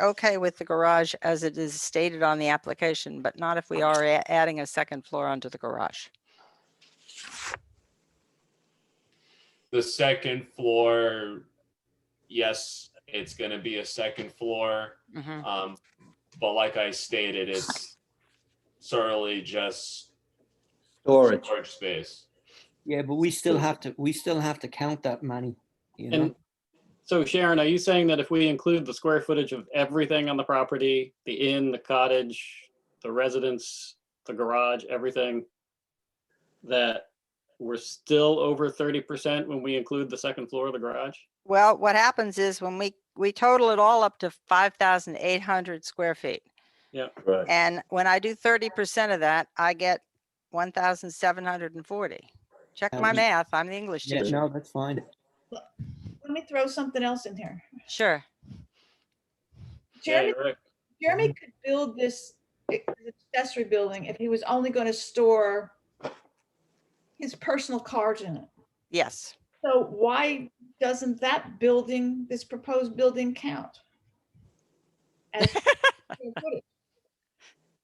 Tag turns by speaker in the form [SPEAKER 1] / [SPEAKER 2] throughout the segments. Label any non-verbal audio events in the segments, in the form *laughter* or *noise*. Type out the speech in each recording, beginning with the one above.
[SPEAKER 1] okay with the garage as it is stated on the application, but not if we are a- adding a second floor onto the garage.
[SPEAKER 2] The second floor, yes, it's gonna be a second floor.
[SPEAKER 1] Mhm.
[SPEAKER 2] Um, but like I stated, it's solely just
[SPEAKER 3] Storage.
[SPEAKER 2] storage space.
[SPEAKER 4] Yeah, but we still have to, we still have to count that money, you know?
[SPEAKER 5] And so Sharon, are you saying that if we include the square footage of everything on the property, the inn, the cottage, the residence, the garage, everything, that we're still over thirty percent when we include the second floor of the garage?
[SPEAKER 1] Well, what happens is when we, we total it all up to five thousand eight hundred square feet.
[SPEAKER 3] Right.
[SPEAKER 1] And when I do thirty percent of that, I get one thousand seven hundred and forty. Check
[SPEAKER 4] That
[SPEAKER 1] my
[SPEAKER 4] was-
[SPEAKER 1] math. I'm the English
[SPEAKER 4] Yeah,
[SPEAKER 1] teacher.
[SPEAKER 4] no, that's fine.
[SPEAKER 6] Let me throw something else in there.
[SPEAKER 1] Sure.
[SPEAKER 5] Yeah,
[SPEAKER 6] Jeremy,
[SPEAKER 5] you're right.
[SPEAKER 6] Jeremy could build this accessory building if he was only going to store his personal cards in it.
[SPEAKER 1] Yes.
[SPEAKER 6] So why doesn't that building, this proposed building count?
[SPEAKER 5] *laughs*
[SPEAKER 6] as-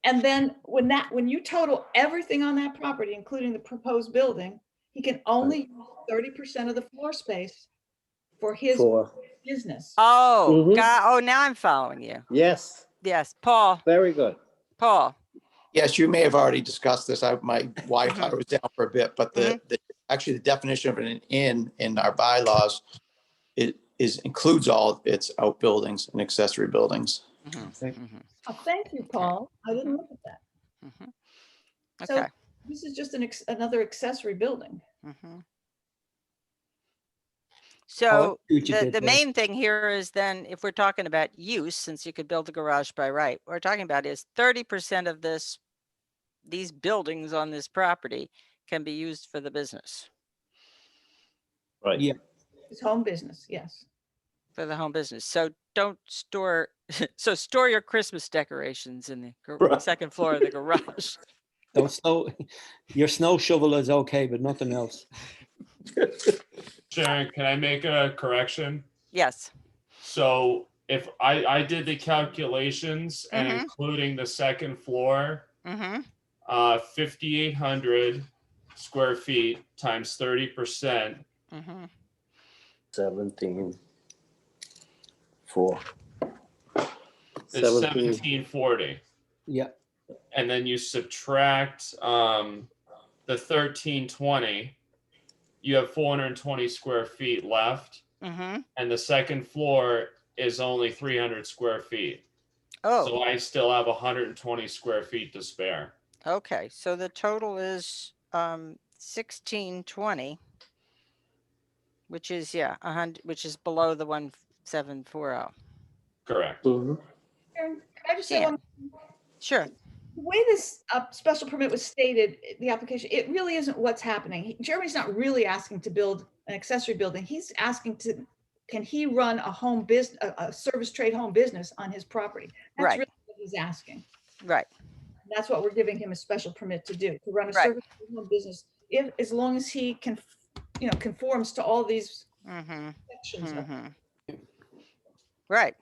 [SPEAKER 6] And then when that, when you total everything on that property, including the proposed building, he can only use thirty percent of the floor space for his
[SPEAKER 3] Four.
[SPEAKER 6] business.
[SPEAKER 1] Oh,
[SPEAKER 5] Mhm.
[SPEAKER 1] God, oh, now I'm following you.
[SPEAKER 3] Yes,
[SPEAKER 1] Yes, Paul,
[SPEAKER 3] very good.
[SPEAKER 1] Paul.
[SPEAKER 7] Yes, you may have already discussed this. I, my Wi-Fi was down for a bit, but the, the, actually the definition of an inn in our bylaws, it is, includes all its outbuildings and accessory buildings.
[SPEAKER 1] Mhm,
[SPEAKER 4] Thank-
[SPEAKER 1] mhm,
[SPEAKER 6] Oh, Thank you, Paul. I didn't look at that.
[SPEAKER 1] mhm.
[SPEAKER 6] So-
[SPEAKER 1] Okay.
[SPEAKER 6] This is just an, ex- another accessory building.
[SPEAKER 1] mhm.
[SPEAKER 4] I'll
[SPEAKER 1] So
[SPEAKER 4] see what you
[SPEAKER 1] the,
[SPEAKER 4] did
[SPEAKER 1] the
[SPEAKER 4] there.
[SPEAKER 1] main thing here is then, if we're talking about use, since you could build a garage by right, what we're talking about is thirty percent of this, these buildings on this property can be used for the business,
[SPEAKER 3] Right.
[SPEAKER 4] Yeah.
[SPEAKER 6] It's home business, yes.
[SPEAKER 1] for the home business. So don't store, *laughs* so store your Christmas decorations in the gar-
[SPEAKER 3] Right.
[SPEAKER 1] second floor of the garage.
[SPEAKER 4] Don't snow, your snow shovel is okay, but nothing else.
[SPEAKER 2] Sharon, can I make a correction?
[SPEAKER 1] Yes.
[SPEAKER 2] So if I, I did the calculations and
[SPEAKER 1] Mhm.
[SPEAKER 2] including the second floor,
[SPEAKER 1] Mm-hmm.
[SPEAKER 2] uh, fifty-eight hundred square feet times thirty percent
[SPEAKER 1] Mm-hmm.
[SPEAKER 3] Seventeen. Four.
[SPEAKER 2] is
[SPEAKER 3] Seventeen.
[SPEAKER 2] seventeen forty.
[SPEAKER 4] Yeah,
[SPEAKER 2] And then you subtract, um, the thirteen twenty, you have four hundred and twenty square feet left.
[SPEAKER 1] Mm-hmm.
[SPEAKER 2] And the second floor is only three hundred square feet. So
[SPEAKER 1] Oh,
[SPEAKER 2] I still have hundred and twenty square feet to spare.
[SPEAKER 1] okay. So the total is, um, sixteen twenty. Which is, yeah, a hundred, which is below the one seven four oh.
[SPEAKER 2] Correct.
[SPEAKER 3] Mhm.
[SPEAKER 6] Karen, Can I just say,
[SPEAKER 1] Yeah.
[SPEAKER 6] one-
[SPEAKER 1] Sure.
[SPEAKER 6] the way this uh, special permit was stated, i- the application, it really isn't what's happening. He- Jeremy's not really asking to build an accessory building. He's asking to, can he run a home business, a service trade home business on his property? That's
[SPEAKER 1] Right.
[SPEAKER 6] really what He's asking.
[SPEAKER 1] Right.
[SPEAKER 6] That's what we're giving him a special permit to do, to run a
[SPEAKER 1] Right.
[SPEAKER 6] service trade home business, if, as long as he can, you know, conforms to all these
[SPEAKER 1] Mm-hmm.
[SPEAKER 6] sections of
[SPEAKER 1] Mhm. Right.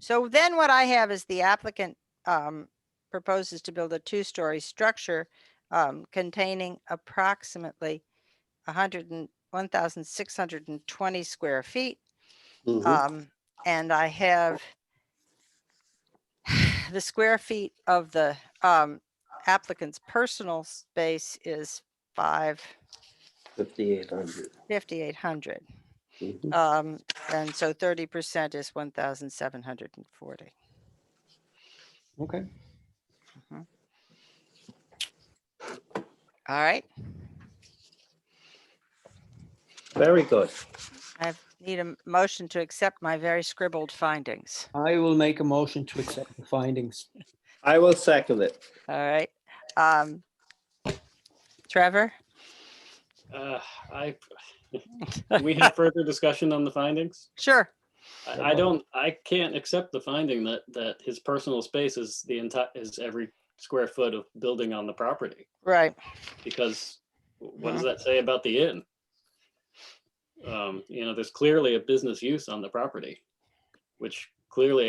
[SPEAKER 1] So then what I have is the applicant um, proposes to build a two-story structure um, containing approximately 100 and 1,620 square feet.
[SPEAKER 3] Mhm.
[SPEAKER 1] Um, and I have *sighs* the square feet of the um, applicant's personal space is 5,
[SPEAKER 3] Fifty-eight hundred.
[SPEAKER 1] 5,800.
[SPEAKER 3] Mhm.
[SPEAKER 1] Um, and so thirty percent is one thousand seven hundred and forty.
[SPEAKER 4] okay.
[SPEAKER 1] All right,
[SPEAKER 3] Very good.
[SPEAKER 1] I need a m- motion to accept my very scribbled findings.
[SPEAKER 4] I will make a motion to accept the findings.
[SPEAKER 3] I will second it.
[SPEAKER 1] All right. Um, Trevor?
[SPEAKER 5] Uh, I, *laughs* do we have further discussion on the findings?
[SPEAKER 1] Sure.
[SPEAKER 5] I, I don't, I can't accept the finding that, that his personal space is the entire, is every square foot of building on the property.
[SPEAKER 1] Right.
[SPEAKER 5] because what does that say about the inn? Um, you know, there's clearly a business use on the property, which clearly